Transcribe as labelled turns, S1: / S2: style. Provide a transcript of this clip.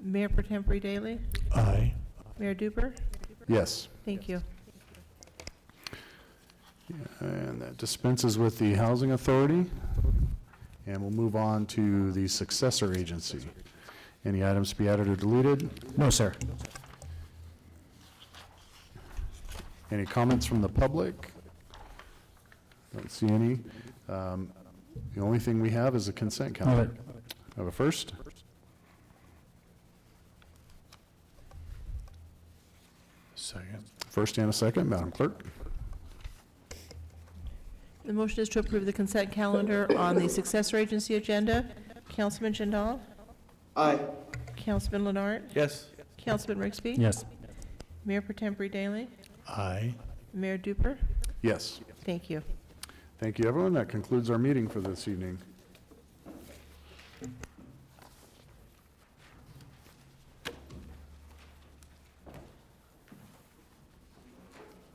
S1: Mayor Pro Tempore Daley?
S2: Aye.
S1: Mayor Duper?
S2: Yes.
S1: Thank you.
S2: And that dispenses with the Housing Authority. And we'll move on to the successor agency. Any items to be added or deleted?
S3: No, sir.
S2: Any comments from the public? Don't see any. Um, The only thing we have is a consent
S3: Move
S2: calendar.
S3: it.
S2: Have a first? Second. First and a second, Madam Clerk?
S1: The motion is to approve the consent calendar on the successor agency agenda. Councilman Jindal?
S4: Aye.
S1: Councilman Leonard?
S4: Yes.
S1: Councilman Rixby?
S3: Yes.
S1: Mayor Pro Tempore Daley?
S2: Aye.
S1: Mayor Duper?
S2: Yes.
S1: Thank you.
S2: Thank you, everyone. That concludes our meeting for this evening.